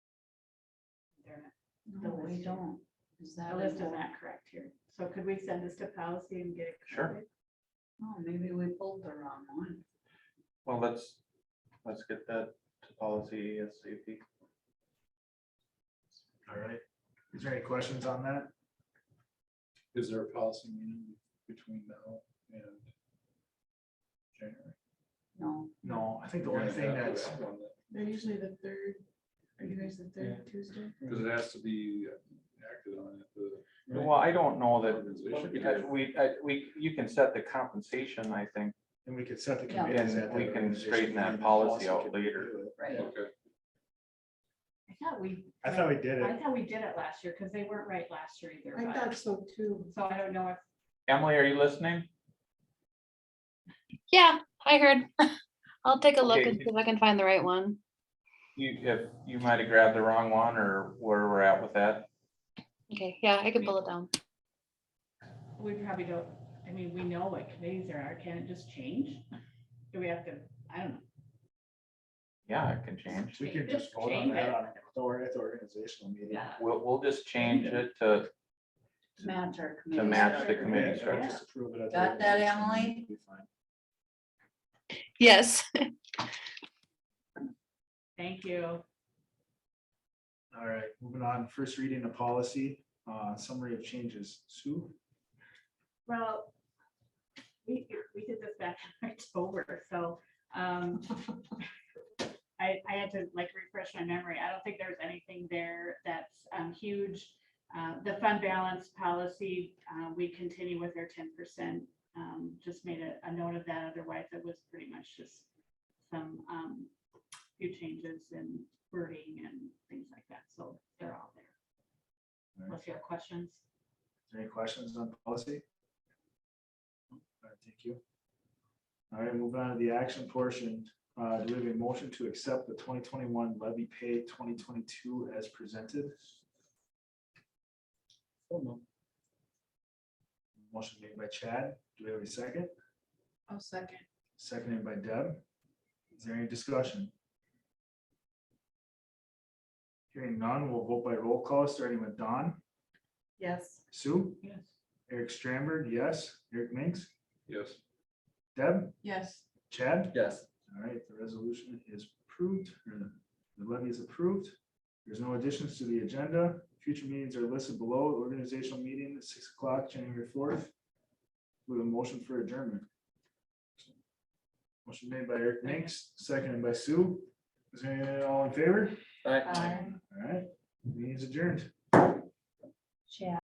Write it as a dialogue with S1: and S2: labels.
S1: No, we don't. Is that?
S2: The list is not correct here. So could we send this to policy and get it?
S3: Sure.
S2: corrected?
S1: Oh, maybe we pulled the wrong one.
S3: Well, let's, let's get that to policy ASAP.
S4: All right. Is there any questions on that?
S5: Is there a policy meeting between now and January?
S1: No,
S4: No, I think the only thing that's,
S6: They're usually the third, are you guys the third Tuesday?
S5: Because it has to be acted on at the.
S3: Well, I don't know
S5: Well,
S3: that, because we, I- we, you can set the compensation, I think,
S4: and we could set the.
S1: Yeah.
S4: committees
S3: And
S4: at
S3: we
S4: that
S3: can
S4: organization,
S3: straighten that
S4: and the
S3: policy out
S4: can
S3: later.
S4: do it.
S1: right.
S5: Okay,
S2: I thought we.
S4: I thought we did
S2: I
S4: it.
S2: thought we did it last year because they weren't right last year either.
S6: I
S2: but-
S6: thought so too.
S2: So I don't know if,
S3: Emily, are you listening?
S7: Yeah, I heard. I'll take a look
S3: Okay.
S7: and see if I can find the right one.
S3: You, if, you might have grabbed the wrong one or where we're at with that.
S7: Okay, yeah, I can pull it down.
S2: we probably don't, I mean, we know what committees there are. Can it just change? Do we have to, I don't know.
S3: Yeah, it can change.
S4: We could just vote on
S2: Change
S4: that
S2: it.
S4: on the or- at the organizational meeting.
S2: Yeah.
S3: We'll, we'll just change it to,
S1: Match our
S3: to
S1: committee.
S3: match the
S1: structure.
S3: committee
S4: Yeah,
S3: structure.
S4: just approve it at the
S1: Got that,
S4: organizational
S1: Emily?
S4: meeting, be fine.
S7: Yes.
S2: Thank you.
S4: All right, moving on, first reading of policy, uh, summary of changes, Sue?
S2: Well, we, we did this back in October, so, um, I, I had to like refresh my memory. I don't think there's anything there that's, um, huge. Uh, the fund balance policy, uh, we continue with our ten percent. Um, just made a, a note of that, otherwise it was pretty much just some, um, few changes in wording and things like that, so they're all there. Unless you have questions.
S4: Any questions on policy? All right, Thank you. All right, moving on to the action portion. Uh, do we have a motion to accept the twenty twenty-one levy pay twenty twenty-two as presented? Motion made by Chad. Do we have a second?
S6: I'll Oh, second.
S4: Seconded by Deb. Is there any discussion? Hearing none, we'll vote by roll call, starting with Don,
S6: Yes.
S4: Sue,
S2: Yes.
S4: Eric Stramberg, yes, Eric Minks,
S5: yes.
S4: Deb,
S6: Yes.
S4: Chad?
S5: Yes.
S4: All right, the resolution is approved, or the- the levy is approved. There's no additions to the agenda. Future meetings are listed below. Organizational meeting at six o'clock, January fourth. With a motion for adjournment. Motion made by Eric Minks, seconded by Sue. Is there anyone all in favor?
S6: Aye.
S4: All right, meeting is adjourned.
S1: Chad.